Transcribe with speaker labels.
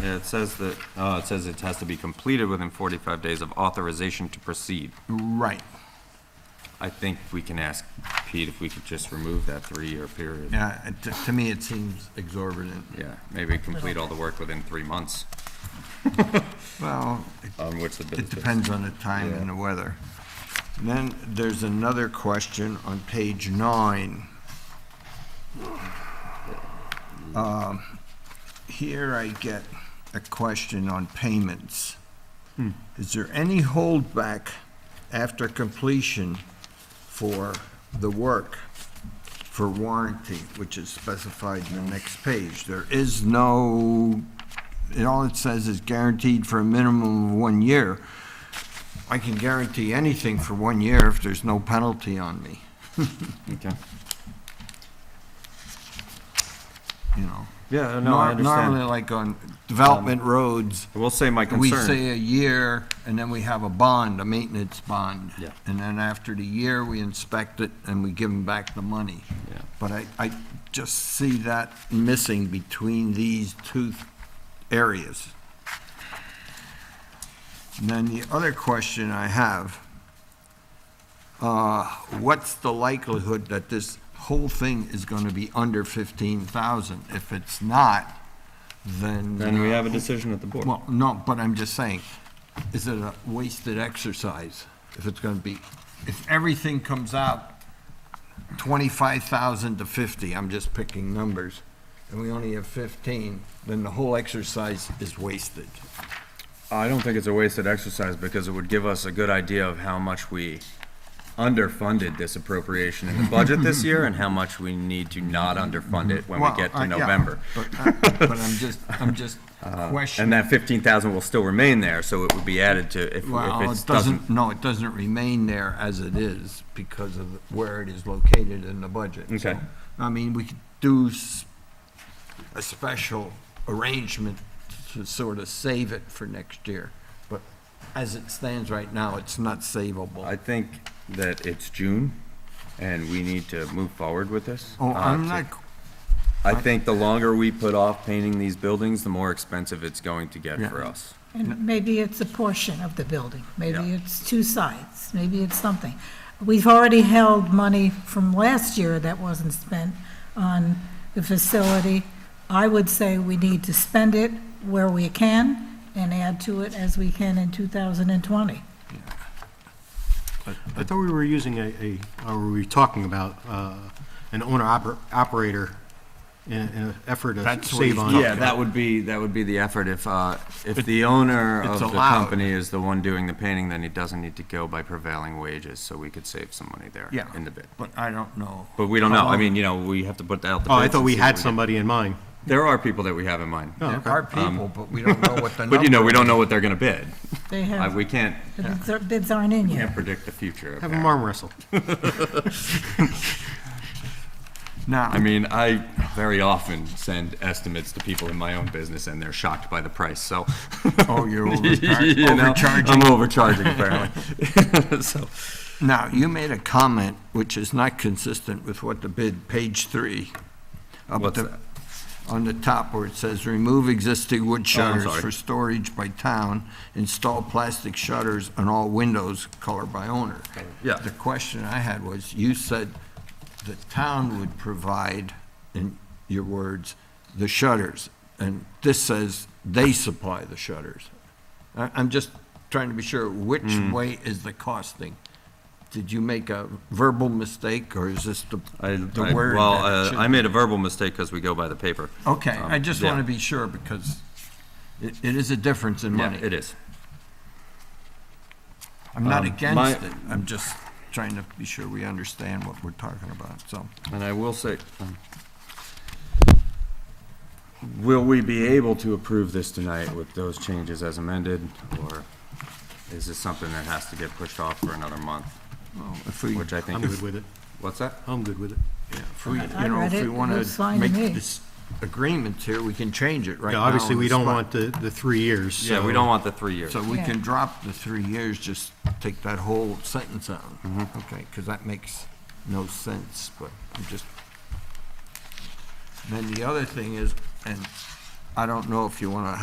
Speaker 1: Yeah, it says that, oh, it says it has to be completed within 45 days of authorization to proceed.
Speaker 2: Right.
Speaker 1: I think we can ask Pete if we could just remove that three-year period.
Speaker 2: Yeah, it- to- to me, it seems exorbitant.
Speaker 1: Yeah, maybe complete all the work within three months,
Speaker 2: Well, it-
Speaker 1: on which the bid
Speaker 2: it depends on the time and the weather. And then there's another question on page nine. Um, Here I get a question on payments. Is there any holdback after completion for the work for warranty, which is specified in the next page? There is no, it all it says is guaranteed for a minimum of one year. I can guarantee anything for one year if there's no penalty on me,
Speaker 1: Okay.
Speaker 2: you know?
Speaker 1: Yeah, Uh, no, I
Speaker 2: Nor-
Speaker 1: understand.
Speaker 2: Normally,
Speaker 1: Um,
Speaker 2: like on development roads,
Speaker 1: I will say my
Speaker 2: we
Speaker 1: concern,
Speaker 2: say a year, and then we have a bond, a maintenance bond.
Speaker 1: Yeah.
Speaker 2: And then after the year, we inspect it and we give them back the money.
Speaker 1: Yeah.
Speaker 2: But I, I just see that missing between these two th- areas. And then the other question I have, uh, what's the likelihood that this whole thing is gonna be under fifteen thousand? If it's not, then. uh,
Speaker 1: then we have a decision at the board.
Speaker 2: Well, no, but I'm just saying, is it a wasted exercise if it's gonna be, if everything comes out twenty-five thousand to fifty, I'm just picking numbers, and we only have fifteen, then the whole exercise is wasted.
Speaker 1: I don't think it's a wasted exercise because it would give us a good idea of how much we underfunded this appropriation in the budget this year and how much we need to not underfund it when we
Speaker 2: Well,
Speaker 1: get to
Speaker 2: I- yeah,
Speaker 1: November. Uh,
Speaker 2: But I- but I'm just, I'm just
Speaker 1: And
Speaker 2: questioning.
Speaker 1: that fifteen thousand will still remain there, so it would be added to if, if
Speaker 2: Well,
Speaker 1: it
Speaker 2: it
Speaker 1: doesn't.
Speaker 2: doesn't, no, it doesn't remain there as it is because of where it is located in the budget.
Speaker 1: Okay.
Speaker 2: I mean, we could do s- a special arrangement to sort of save it for next year, but as it stands right now, it's not
Speaker 1: I
Speaker 2: savable.
Speaker 1: think that it's June and we need to move forward with this.
Speaker 2: Oh,
Speaker 1: Uh,
Speaker 2: I'm
Speaker 1: to-
Speaker 2: not,
Speaker 1: I think the longer we put off painting these buildings, the more expensive it's going to get
Speaker 2: Yeah.
Speaker 1: for us.
Speaker 3: And maybe it's a portion of the building, maybe
Speaker 1: Yeah.
Speaker 3: it's two sides, maybe it's something. We've already held money from last year that wasn't spent on the facility. I would say we need to spend it where we can and add to it as we can in 2020.
Speaker 4: I thought we were using a, a, or were we talking about, uh, an owner oper- operator in, in an effort to
Speaker 2: That's what he's
Speaker 4: save on?
Speaker 2: talking
Speaker 1: Yeah, that would be, that would be the effort. If, uh, if the owner of
Speaker 2: it's
Speaker 1: the
Speaker 2: allowed.
Speaker 1: company is the one doing the painting, then he doesn't need to go by prevailing wages, so we could save some money there
Speaker 2: yeah,
Speaker 1: in the bid.
Speaker 2: but I don't know.
Speaker 1: But we don't know. I
Speaker 2: Hello?
Speaker 1: mean, you know, we have to put that out the
Speaker 4: Oh, I
Speaker 1: bids
Speaker 4: thought
Speaker 1: and
Speaker 4: we
Speaker 1: see
Speaker 4: had
Speaker 1: what
Speaker 4: somebody in mind. Oh,
Speaker 1: There are people that we have in mind.
Speaker 2: There are people, but we don't know what the number.
Speaker 1: Um, But you know, we don't know what they're gonna bid.
Speaker 3: They
Speaker 1: Uh,
Speaker 3: have,
Speaker 1: We can't,
Speaker 3: the bids are- bids aren't in
Speaker 1: can't
Speaker 3: yet.
Speaker 1: predict the future.
Speaker 4: Have them
Speaker 1: apparently.
Speaker 4: arm wrestle.
Speaker 1: I
Speaker 2: Now,
Speaker 1: mean, I very often send estimates to people in my own business and they're shocked by the price, so.
Speaker 2: oh, you're
Speaker 1: You
Speaker 2: overchar-
Speaker 1: know, I'm
Speaker 2: overcharging.
Speaker 1: overcharging apparently. So,
Speaker 2: Now, you made a comment which is not consistent with what the bid, page three. up
Speaker 1: What's
Speaker 2: the-
Speaker 1: that? Oh,
Speaker 2: On the top where it says, remove existing wood shutters
Speaker 1: sorry.
Speaker 2: for storage by town, install plastic shutters on all windows, color by owner.
Speaker 1: Yeah.
Speaker 2: The question I had was, you said the town would provide, in your words, the shutters, and this says they supply the shutters. I- I'm just trying to be sure, which
Speaker 1: Hmm.
Speaker 2: way is the costing? Did you make a verbal mistake, or is this the
Speaker 1: I,
Speaker 2: the
Speaker 1: I-
Speaker 2: word?
Speaker 1: well,
Speaker 2: that it
Speaker 1: uh,
Speaker 2: should
Speaker 1: I
Speaker 2: be?
Speaker 1: made a verbal mistake because we go by the paper.
Speaker 2: Okay,
Speaker 1: Um,
Speaker 2: I just
Speaker 1: yeah.
Speaker 2: want to be sure, because it it is a difference in
Speaker 1: Yeah,
Speaker 2: money.
Speaker 1: it is.
Speaker 2: I'm not
Speaker 1: Um,
Speaker 2: against
Speaker 1: my-
Speaker 2: it, I'm just trying to be sure we understand what we're talking about, so.
Speaker 1: And I will say, um, will we be able to approve this tonight with those changes as amended? Or is this something that has to get pushed off for another month?
Speaker 2: well, If we,
Speaker 1: Which I think
Speaker 4: I'm good
Speaker 1: is,
Speaker 4: with it.
Speaker 1: what's that?
Speaker 4: I'm good with it.
Speaker 2: if we,
Speaker 3: I
Speaker 2: you know,
Speaker 3: read
Speaker 2: if
Speaker 3: it,
Speaker 2: we
Speaker 3: it
Speaker 2: want
Speaker 3: looks fine
Speaker 2: to
Speaker 3: to
Speaker 2: make
Speaker 3: me.
Speaker 2: this agreement here, we can change it right
Speaker 4: Yeah,
Speaker 2: now.
Speaker 4: obviously,
Speaker 2: on
Speaker 4: we
Speaker 2: the
Speaker 4: don't
Speaker 2: spot.
Speaker 4: want the, the three years,
Speaker 1: Yeah, we
Speaker 4: so-
Speaker 1: don't want the three years.
Speaker 2: So we
Speaker 3: Yeah.
Speaker 2: can drop the three years, just take that whole sentence out. Okay, because that makes no sense, but I'm just. Then the other thing is, and I don't know if you want to